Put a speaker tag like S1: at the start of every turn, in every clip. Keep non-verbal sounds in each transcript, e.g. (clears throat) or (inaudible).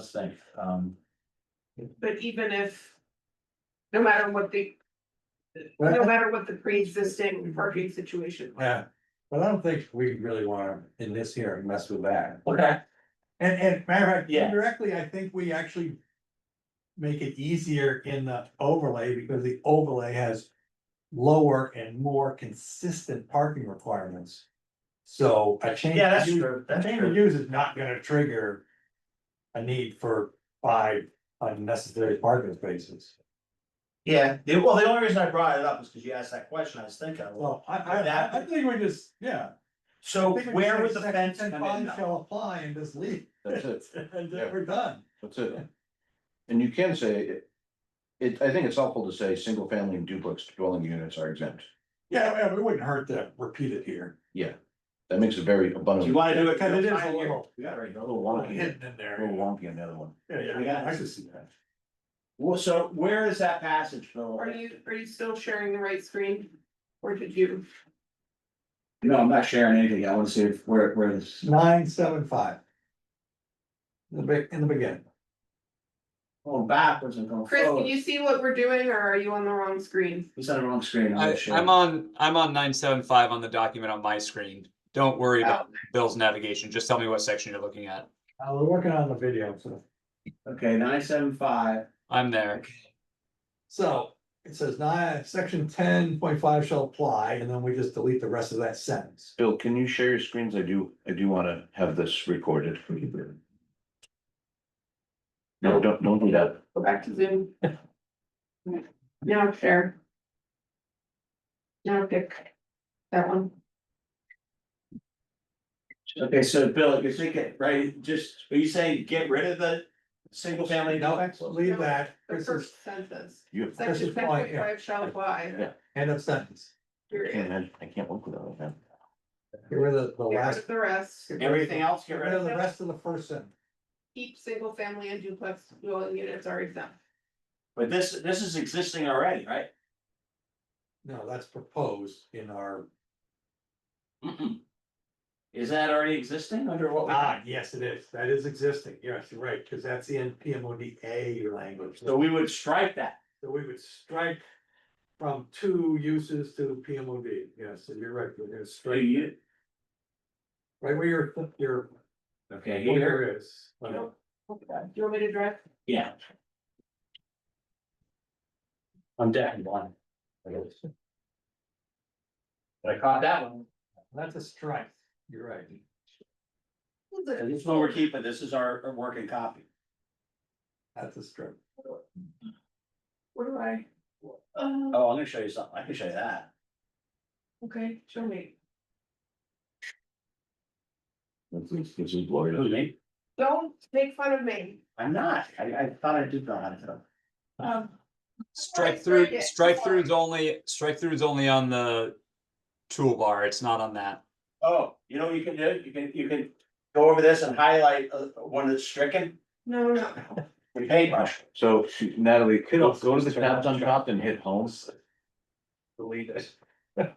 S1: Let's think, um,
S2: But even if, no matter what the, no matter what the pre-existing parking situation. was.
S3: Yeah, uh, but I don't think we really wanna in this hearing mess with that.
S1: okay,
S3: And and matter of fact,
S1: Yeah.
S3: indirectly, I think we actually. Make it easier in the overlay because the overlay has lower and more consistent parking requirements. So a change.
S1: yeah, that's
S3: in use-
S1: true,
S3: a
S1: that's
S3: Change of
S1: true,
S3: use is not gonna trigger. A need for five unnecessary parking spaces.
S1: yeah, the- well, the only reason I brought it up is because you asked that question, I was thinking, well,
S3: Well, I I I- I think we just, yeah.
S1: so
S3: I think we
S1: where
S3: say
S1: would the
S3: section
S1: fence come in?
S3: 10.5
S1: though?
S3: Shall apply and just leave.
S4: That's it,
S3: (laughs) And
S4: Yeah.
S3: then we're done.
S4: that's it. And you can say, it- it, I think it's helpful to say, single family and duplex dwelling units are exempt.
S3: Yeah, yeah, it wouldn't hurt to repeat it here.
S4: Yeah, that makes it very
S1: Do
S4: abundant.
S1: you wanna do it?
S3: Cause it is a
S1: Fine,
S3: little
S4: Yeah, right, a little
S3: little
S4: wonky,
S3: hidden in
S4: a
S3: there.
S4: little wonky on the other one.
S3: Yeah,
S1: We
S3: yeah,
S1: got
S3: I
S1: it.
S3: could see that.
S1: Well, so where is that passage, Phil?
S2: Are you, are you still sharing the right screen? Or did you?
S1: No, I'm not sharing anything, I wanna see if, where, where this.
S3: Nine, seven, five. In the big, in the beginning.
S1: Going backwards and going
S2: Chris, can
S1: forward,
S2: you see what we're doing or are you on the wrong screen?
S1: who's on the wrong screen?
S5: I,
S1: sure.
S5: I'm on, I'm on nine seven five on the document on my screen. Don't worry about Bill's navigation. Just tell me what section you're looking at.
S3: Uh, we're working on the video, so.
S1: Okay, nine seven five,
S5: I'm there.
S3: So it says nine, section ten point five shall apply, and then we just delete the rest of that sentence.
S4: Bill, can you share your screens? I do, I do wanna have this recorded. No, don't, don't do that.
S2: Go back to
S3: (laughs)
S2: Zoom. Now share. Now pick that one.
S1: okay, so Bill, you're thinking, right, just, are you saying get rid of the single family duplex?
S3: Leave that,
S2: The
S3: this is
S2: first sentence,
S4: You have-
S3: This
S2: section
S3: is
S2: ten
S3: why,
S2: point
S3: yeah.
S2: five shall apply.
S4: Yeah.
S3: end of sentence.
S4: I can't
S2: Period.
S4: imagine- I can't work without that.
S3: Get rid of the
S2: Get rid
S3: last,
S2: of the rest,
S1: Everything else,
S3: get rid of the rest of the first sentence.
S2: keep single family and duplex dwelling units are exempt.
S1: But this, this is existing already, right? (clears throat)
S3: No, that's proposed in our.
S1: Is that already existing under what? we-
S3: Ah, yes, it is. That is existing. Yes, you're right, because that's in PMODA language.
S1: So we would strike that.
S3: So we would strike from two uses to PMOD, yes, and you're right, we're gonna
S1: Do
S3: strike,
S1: you?
S3: right where your, your.
S1: Okay, here,
S3: Here is.
S2: Nope. Do you want me to drive?
S1: yeah. I'm deaf and blind. I guess. But I caught that one.
S3: That's a strike, you're right.
S1: And This one we're keeping, this is our, our working copy.
S3: That's a strike.
S2: Where do I? Uh,
S1: Oh, I'm gonna show you something, I can show you that.
S2: okay, show me.
S4: This is- this is
S1: Who,
S4: glorious.
S1: me?
S2: Don't make fun of me.
S1: I'm not, I, I thought I did know how to do it.
S2: Um,
S5: Strike
S2: strike
S5: through,
S2: it.
S5: strike through is only, strike through is only on the toolbar. It's not on that.
S1: Oh, you know what you can do, you can, you can go over this and highlight, uh, one that's stricken,
S2: no, no,
S1: with paintbrush.
S4: Oh, So Natalie, could go to the tabs on top and hit home
S3: Delete it. (laughs)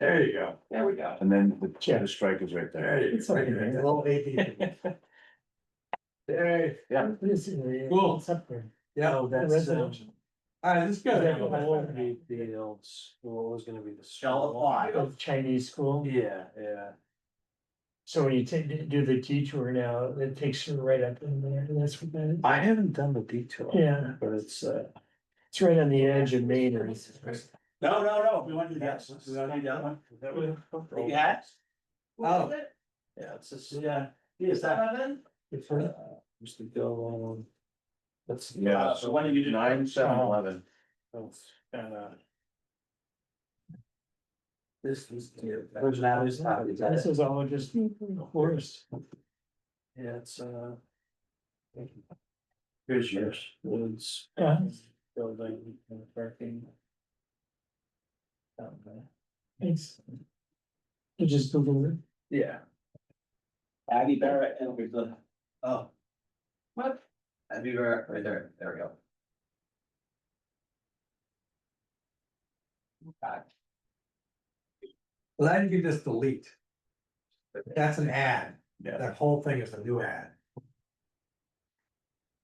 S3: There you go.
S2: there we go.
S4: and then the the strike is right there.
S3: There you go. A little
S1: (laughs)
S3: AD. There,
S6: What is it? It's
S3: Cool.
S6: up there.
S3: yeah, all
S6: Oh, that's.
S1: uh,
S6: um,
S3: right, this is good.
S6: that won't be the old
S1: Shall apply.
S6: Of Chinese school.
S1: Yeah, yeah.
S6: So when you ta- do the detour now, it takes you right up in there. and That's what that
S4: I haven't done the detail.
S6: is. Yeah,
S4: But it's uh.
S6: it's right on the edge of Maine. or-
S1: No, no, no, we want to do that, we want to do the other one. That you had?
S2: What was it?
S1: Oh. Yeah, it's just, yeah, is that?
S2: Eleven?
S4: Used to go on. That's. Yeah,
S1: So when did you do?
S4: nine, seven,
S6: Oh.
S4: eleven.
S1: This is. Originality is not, is
S6: This is all just horse.
S1: Yeah, it's uh. Here's yours. Woods.
S6: Yeah.
S1: Building, parking.
S6: It's. You just Google it.
S1: Yeah. Abby Barrett and we the, oh. What? Abby Barrett, right there, there we go. Back.
S3: Well, then you can just delete. That's an ad.
S4: Yeah.
S3: That whole thing is a new ad.